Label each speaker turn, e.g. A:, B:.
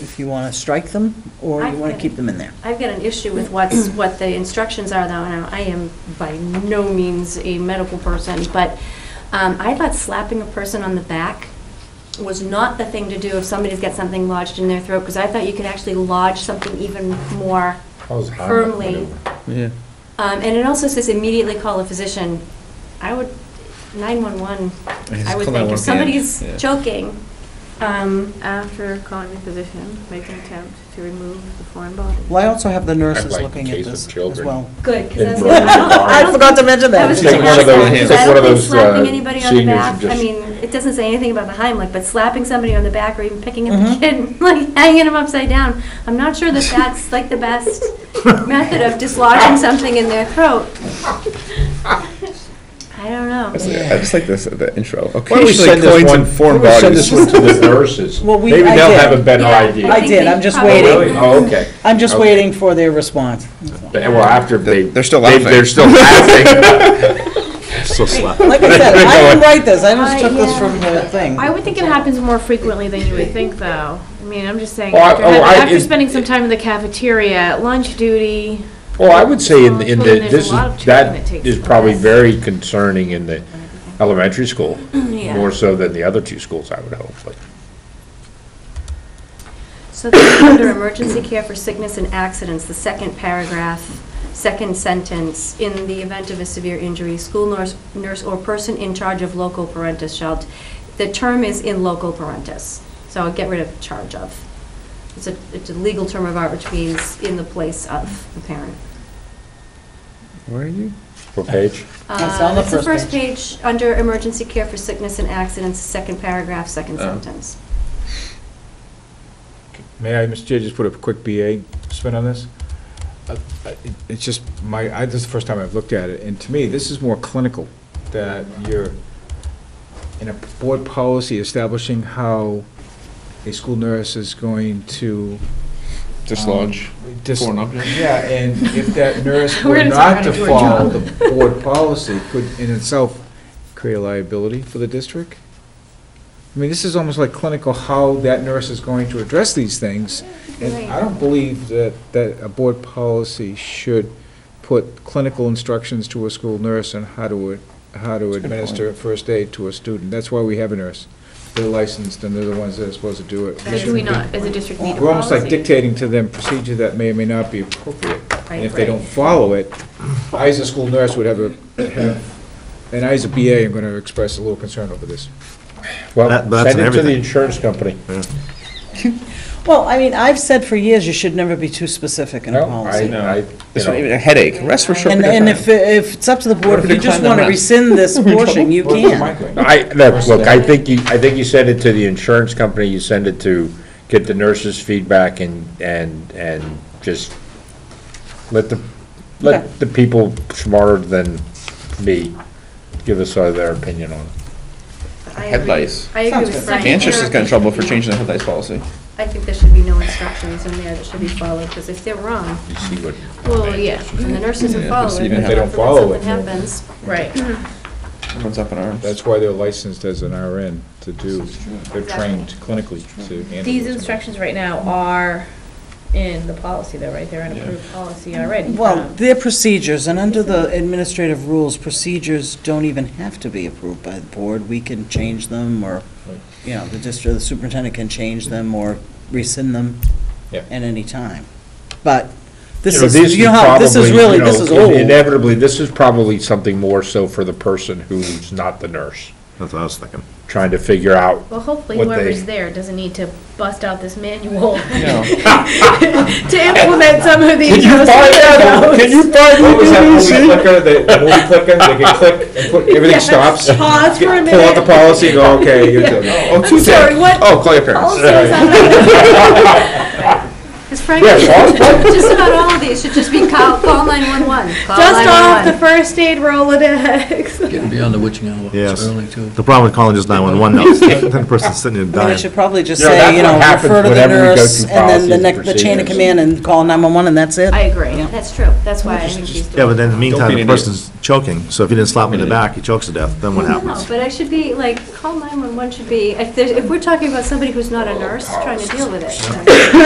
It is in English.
A: if you want to strike them, or you want to keep them in there.
B: I've got an issue with what's, what the instructions are though, now, I am by no means a medical person, but um, I thought slapping a person on the back was not the thing to do if somebody's got something lodged in their throat, because I thought you could actually lodge something even more
C: How's Hamlet
B: firmly.
C: maneuver?
D: Yeah.
B: Um, And it also says immediately call a physician. I would, 911,
D: Just
B: I would
D: call
B: think,
D: 911,
B: if somebody's
D: yeah.
B: choking, um,
E: After calling the physician, make an attempt to remove the foreign body.
A: Well, I also have the nurses
C: like
A: looking
C: case
A: at
C: of
A: this as
C: children.
A: well.
B: good, because I was
C: Inverted
B: gonna- I don't- I
C: arms.
B: don't
A: forgot to mention
B: I was
A: that.
B: just
C: Take one of
B: gonna
C: those,
B: say,
C: uh,
B: I
C: take one
B: don't
C: of
B: think
C: those,
B: slapping
C: uh,
B: anybody on the
C: seniors
B: back,
C: who
B: I
C: just-
B: mean, it doesn't say anything about the Heimlich, but slapping somebody on the back or even picking up
A: Mhm.
B: the kid, like hanging him upside down, I'm not sure that that's like the best method of dislodging something in their throat. I don't know.
F: That's- I just like this, the intro.
C: Why don't we
F: Occasionally
C: send this
F: coins
C: one,
F: and foreign
C: why don't we
F: bodies.
C: send this one to the nurses?
A: Well, we-
C: Maybe
A: I
C: they'll
A: did.
C: have a better
B: Yeah,
C: idea.
A: I
B: think
A: did,
B: they
A: I'm just
C: Oh,
B: probably-
C: really? Oh, okay.
A: I'm just
C: Okay.
A: waiting for their response.
C: They- Well, after they.
F: They're still
C: they-
F: laughing.
C: They're still laughing.
D: So slap.
A: Like I said, I didn't write this, I just
B: I-
A: took this
B: yeah.
A: from the thing.
E: I would think it happens more frequently than you would think, though. I mean, I'm just saying,
C: Oh, I-
E: after
C: oh,
E: having-
C: I-
E: after
C: it-
E: spending some time in the cafeteria, lunch duty,
C: Well, I would say in,
E: Well,
C: in
E: well,
C: the,
E: there's a
C: this is,
E: lot of training that
C: that
E: takes
C: is probably
E: place.
C: very concerning in the elementary school,
B: Yeah.
C: more so than the other two schools, I would hope, but.
B: So then under emergency care for sickness and accidents, the second paragraph, second sentence, in the event of a severe injury, school nurse, nurse or person in charge of local parentis shall, the term is in local parentis, so I'll get rid of charge of. It's a, it's a legal term of art, which means in the place of the parent.
F: Where are you?
C: What page?
A: That's on the
B: Uh, it's
A: first
B: first page, under emergency care for sickness and accidents, second paragraph, second
D: Oh.
B: sentence.
G: May I, Mr. Chair, just put a quick BA spin on this? Uh, I- It's just my, I, this is the first time I've looked at it, and to me, this is more clinical, that you're in a board policy establishing how a school nurse is going to.
F: Dislodge
G: um, dis-
F: foreign object.
G: Yeah, and if that nurse
E: We're
G: were
E: gonna talk
G: not
E: how
G: to
E: to do our
G: follow
E: job.
G: the board policy, could in itself create a liability for the district? I mean, this is almost like clinical, how that nurse is going to address these things. And I don't believe that, that a board policy should put clinical instructions to a school nurse on how to, how to administer first aid to a student. That's why we have a nurse. They're licensed and they're the ones that are supposed to do it.
E: should we not, as a district, need a policy?
G: We're almost like dictating to them procedure that may or may not be appropriate. And if they
B: Right, right.
G: don't follow it, I, as a school nurse, would have a, have, and I, as a BA, am gonna express a little concern over this.
C: Well,
D: That- that's
C: send
D: in
C: it to the
D: everything.
C: insurance company.
A: Well, I mean, I've said for years, you should never be too specific in a
C: No, I, I,
A: policy.
C: you know.
F: This would give me a headache. Rest for a short
A: And,
F: period
A: and
F: of
A: if, if it's up to the board, if you just want to rescind this portion, you can.
C: I, look, look, I think you, I think you send it to the insurance company, you send it to, get the nurses' feedback and, and, and just let the,
A: Okay.
C: let the people smarter than me give us uh, their opinion on it.
B: I agree-
F: Head lice.
B: I agree
A: Sounds
B: with
A: good.
B: Frank.
F: time. Manchester's got in trouble for
B: Therapy.
F: changing the head lice policy.
B: I think there should be no instructions in there that should be followed, because if they're wrong,
C: You see what?
E: Well, yeah,
B: and the nurses
F: Yeah,
B: are following,
F: even
B: and
F: if they
G: don't follow it,
B: something happens,
E: right.
F: Everyone's up in arms.
G: That's why they're licensed as an RN to do, they're trained clinically to handle.
E: These
G: this.
E: instructions right now are in the policy though, right? They're in approved policy already.
A: Well,
E: Um,
A: they're procedures, and under the administrative rules, procedures don't even have to be approved by the board. We can change them, or, you know, the district, the superintendent can change them or rescind them
G: Yeah.
A: at any time. But this
C: You know,
A: is, you know how, this is
C: probably,
A: really,
C: you
A: this
C: know,
A: is old.
C: Inevitably, this is probably something more so for the person who's not the nurse,
D: That's what I was thinking.
C: trying to figure out.
E: Well, hopefully
C: what they-
E: whoever's there doesn't need to bust out this manual
F: No.
E: to implement some of these.
C: Can you find
G: What was that movie
C: me
G: clicker, the, the movie clicker, they can click, and put, everything stops, pull
E: Pause for a
G: out the policy, and go, okay, you're done. Oh, two
E: Sorry,
G: things.
E: what?
F: Oh, call your parents.
E: Policies on-
B: because frankly,
C: Yes, all-
B: just about all of these should just be call, call 911. Call
E: Just off
B: 911.
E: the first aid Rolodex.
H: Getting beyond the witching hour, it's
D: Yes.
H: early too.
D: The problem with calling just 911 now is that the person's sitting there
A: I mean,
D: dying.
A: it should probably just
C: You know, that's
A: say, you
C: what
A: know,
C: happens
A: refer to the
C: whenever we go
A: nurse,
C: through
A: and then
C: policies
A: the
C: and
A: next, the chain of
C: procedures.
A: command, and call 911, and that's it?
E: I agree.
B: That's true, that's why I think she's doing.
D: Yeah, but then in the meantime,
F: be
D: the
F: an
D: person's choking, so if you didn't slap him in the back, he chokes to death, then what
B: No,
D: happens?
B: but I should be, like, call 911 should be, if there's, if we're talking about somebody who's not a nurse, trying to deal with it. then-